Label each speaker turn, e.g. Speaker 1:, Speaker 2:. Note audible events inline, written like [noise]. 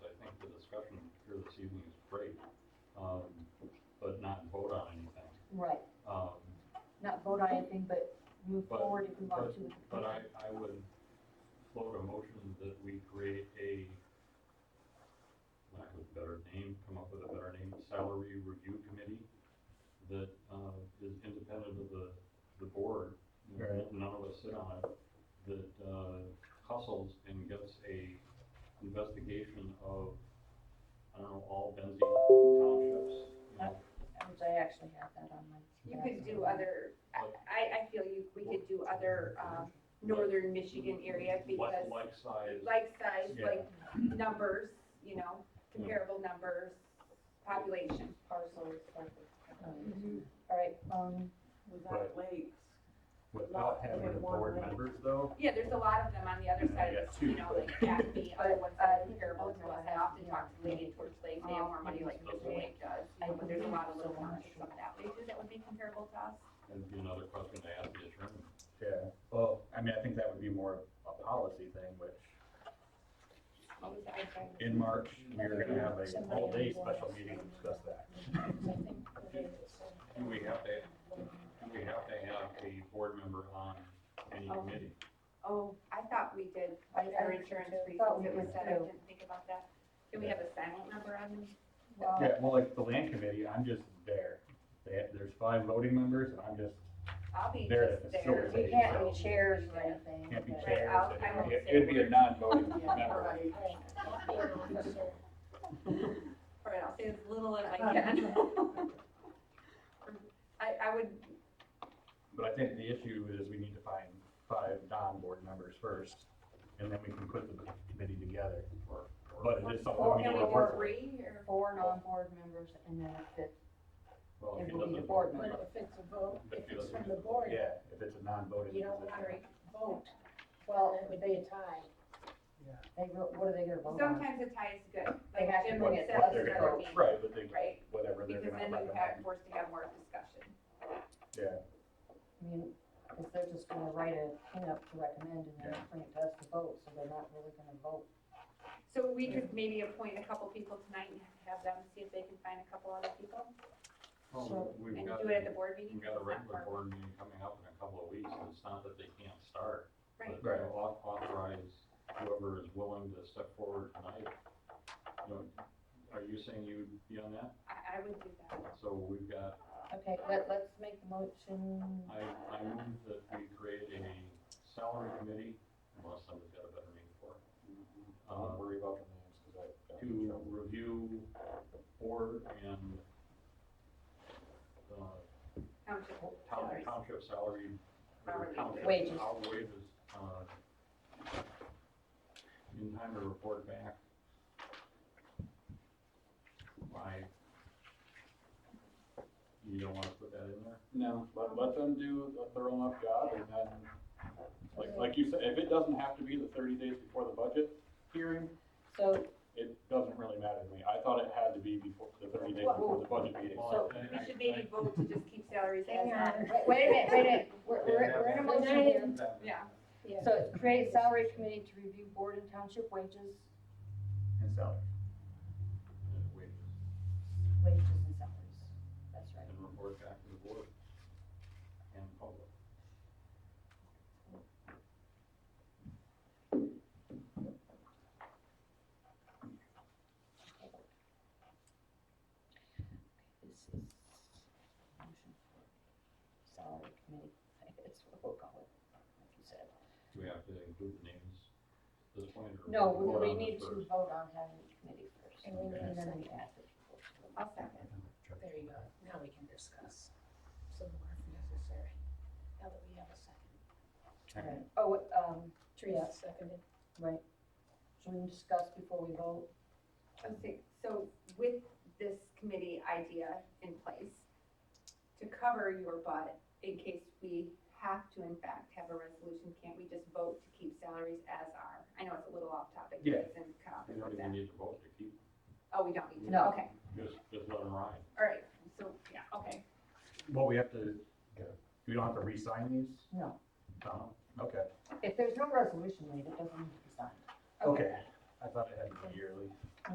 Speaker 1: evening is great, um, but not vote on anything.
Speaker 2: Right,
Speaker 1: Um,
Speaker 2: not vote on anything, but move
Speaker 1: But-
Speaker 2: forward if we want to. with the
Speaker 1: but I,
Speaker 2: petition.
Speaker 1: I would float a motion that we create a, lack of a better name, come up with a better name, salary review committee that, uh, is independent of the, the board.
Speaker 3: Right.
Speaker 1: None of us sit on it, that, uh, hustles and gets a investigation of, I don't know, all Benzie townships. you know,
Speaker 2: Which I actually have that on my.
Speaker 4: You could do other, I, I- I feel you, we could do other, um, northern Michigan area because
Speaker 1: Like, like size.
Speaker 4: like size,
Speaker 1: Yeah.
Speaker 4: like numbers, you know, comparable numbers, population.
Speaker 2: Parcels, like, um, all right, um,
Speaker 5: Without lakes.
Speaker 1: Without having the board members though,
Speaker 4: Yeah, there's a lot of them on the other
Speaker 1: Yeah,
Speaker 4: side
Speaker 1: I
Speaker 4: of,
Speaker 1: got
Speaker 4: the- you
Speaker 1: two,
Speaker 4: know,
Speaker 1: but-
Speaker 4: like Acme, other ones that are comparable to us. I often talk to Lady Torch Lake, they have more money like Michigan Lake does, you know, but there's a lot of little ones, some of that, they do that would be comparable to us.
Speaker 1: that'd be another question to ask the attorney.
Speaker 3: Yeah, well, I mean, I think that would be more a policy thing, which
Speaker 4: What was the ice cream?
Speaker 3: in March, we are gonna have a whole day special meeting to discuss that.
Speaker 1: Do we have to, do we have to have a board member on any
Speaker 4: Oh.
Speaker 1: committee?
Speaker 4: Oh, I thought we did,
Speaker 2: I,
Speaker 4: our
Speaker 2: I
Speaker 4: insurance
Speaker 2: thought
Speaker 4: reasons,
Speaker 2: we
Speaker 4: it was
Speaker 2: did
Speaker 4: said, I
Speaker 2: too.
Speaker 4: didn't think about that. Can we have a silent number on this?
Speaker 2: Well,
Speaker 3: Yeah, well, like the land committee, I'm just there. They have, there's five voting members, and I'm just,
Speaker 4: I'll be
Speaker 3: There
Speaker 4: just
Speaker 3: it is.
Speaker 4: there.
Speaker 3: Sure.
Speaker 2: we can't be chairs or anything.
Speaker 3: can't be
Speaker 2: but-
Speaker 4: chair.
Speaker 3: chairs.
Speaker 4: I'll- I won't
Speaker 3: It-
Speaker 4: say
Speaker 3: It'd be
Speaker 4: a
Speaker 3: a
Speaker 4: word.
Speaker 3: non-voting member.
Speaker 5: Everybody,
Speaker 4: All right, I'll say as little as I
Speaker 2: Uh,
Speaker 4: can. [laughs] I, I would,
Speaker 3: But I think the issue is we need to find five non-board members first, and then we can put the committee together.
Speaker 1: Or- or-
Speaker 3: But it is something
Speaker 2: Or
Speaker 3: we
Speaker 4: can
Speaker 3: need
Speaker 4: we
Speaker 3: to
Speaker 4: do
Speaker 3: work with.
Speaker 4: three or?
Speaker 2: Four non-board members and then a fifth,
Speaker 1: Well, if
Speaker 2: it
Speaker 1: he
Speaker 2: will be the
Speaker 1: doesn't,
Speaker 2: board
Speaker 6: But
Speaker 2: member.
Speaker 6: if it's a vote,
Speaker 1: If
Speaker 6: if
Speaker 1: you
Speaker 6: it's
Speaker 1: don't-
Speaker 6: from the board,
Speaker 3: Yeah, if it's a non-voting.
Speaker 6: you don't
Speaker 3: position.
Speaker 6: want to vote,
Speaker 2: Well,
Speaker 6: it would be a tie.
Speaker 2: they, wrote- what are they gonna vote on?
Speaker 4: Sometimes a tie is good,
Speaker 2: They
Speaker 4: like
Speaker 2: have
Speaker 4: Jim
Speaker 2: to
Speaker 4: would
Speaker 2: bring
Speaker 3: What-
Speaker 2: it to
Speaker 4: said
Speaker 2: us
Speaker 3: what
Speaker 4: at
Speaker 3: they're
Speaker 2: for
Speaker 4: another
Speaker 3: gonna,
Speaker 4: meeting,
Speaker 3: right, but they,
Speaker 4: right?
Speaker 3: whatever they're
Speaker 4: Because
Speaker 3: gonna
Speaker 4: then you
Speaker 3: recommend.
Speaker 4: have, forced to have more discussion.
Speaker 2: I mean, if they're just gonna write a thing up to recommend and then
Speaker 3: Yeah.
Speaker 2: bring it to us to vote, so they're not really gonna vote.
Speaker 4: So we could maybe appoint a couple people tonight and have them see if they can find a couple other people
Speaker 1: well, we've
Speaker 4: and
Speaker 1: got,
Speaker 4: do it at the board meeting.
Speaker 1: we've got a
Speaker 4: It's not
Speaker 1: regular
Speaker 4: hard.
Speaker 1: board meeting coming up in a couple of weeks, and it's not that they can't start.
Speaker 4: Right.
Speaker 1: But you know, au- authorize whoever is willing to step forward tonight. You know, are you saying you'd be on that?
Speaker 4: I, I would do that.
Speaker 1: So we've got,
Speaker 2: Okay, let, let's make the motion.
Speaker 1: I, I move that we create a salary committee, unless somebody's got a better name for it.
Speaker 3: Don't
Speaker 1: Uh,
Speaker 3: worry about the names, cause I. got in
Speaker 1: to
Speaker 3: trouble.
Speaker 1: review board and, uh,
Speaker 4: Township
Speaker 1: town,
Speaker 4: salaries.
Speaker 1: township salary. or
Speaker 4: Hourly.
Speaker 1: township
Speaker 2: Wages.
Speaker 1: hour Wages, uh, in time to report back by, you don't wanna put that in there?
Speaker 5: No, let, let them do a thorough enough job and then, like, like you said, if it doesn't have to be the thirty days before the budget hearing,
Speaker 2: So,
Speaker 5: it doesn't really matter to me. I thought it had to be before, the thirty days before the budget meeting.
Speaker 1: Well, I-
Speaker 4: We
Speaker 1: I-
Speaker 4: should maybe vote to just keep salaries as
Speaker 2: Hang
Speaker 4: are.
Speaker 2: on. wait, uh, wait a minute, wait a minute, we're,
Speaker 1: I-
Speaker 2: we're, we're in a motion here.
Speaker 4: Yeah.
Speaker 2: So it's create a salary committee to review board and township wages,
Speaker 3: And salary.
Speaker 1: And uh, wages,
Speaker 2: wages and salaries, that's right.
Speaker 1: and report back to the board and public.
Speaker 2: This is motion for salary committee, [laughs] that's what we'll call it, like you said.
Speaker 1: Do we have to include the names at this point, or?
Speaker 2: No,
Speaker 1: vote
Speaker 2: we, we
Speaker 1: on this
Speaker 2: need to
Speaker 1: first?
Speaker 2: vote on having a committee first.
Speaker 6: And we need
Speaker 2: And
Speaker 6: a
Speaker 2: then we
Speaker 6: second.
Speaker 2: add the people to it.
Speaker 4: I'll second.
Speaker 6: There you go, now we can discuss some more if necessary, now that we have a second.
Speaker 2: Alright. Oh, what, um,
Speaker 6: Teresa seconded.
Speaker 2: right, should we discuss before we vote?
Speaker 4: Okay, so with this committee idea in place, to cover your butt, in case we have to in fact have a resolution, can't we just vote to keep salaries as are? I know it's a little off topic, but it's in
Speaker 1: We
Speaker 4: conflict
Speaker 1: don't even
Speaker 4: with that.
Speaker 1: need to vote to keep,
Speaker 4: Oh, we don't need to,
Speaker 2: No.
Speaker 4: okay,
Speaker 1: just, just let them ride.
Speaker 4: all right, so, yeah, okay.
Speaker 3: Well, we have to, we don't have to re-sign these?
Speaker 2: No.
Speaker 3: No? Okay,
Speaker 2: If there's no resolution made, it doesn't need to be signed.
Speaker 3: okay. I thought it had to be yearly.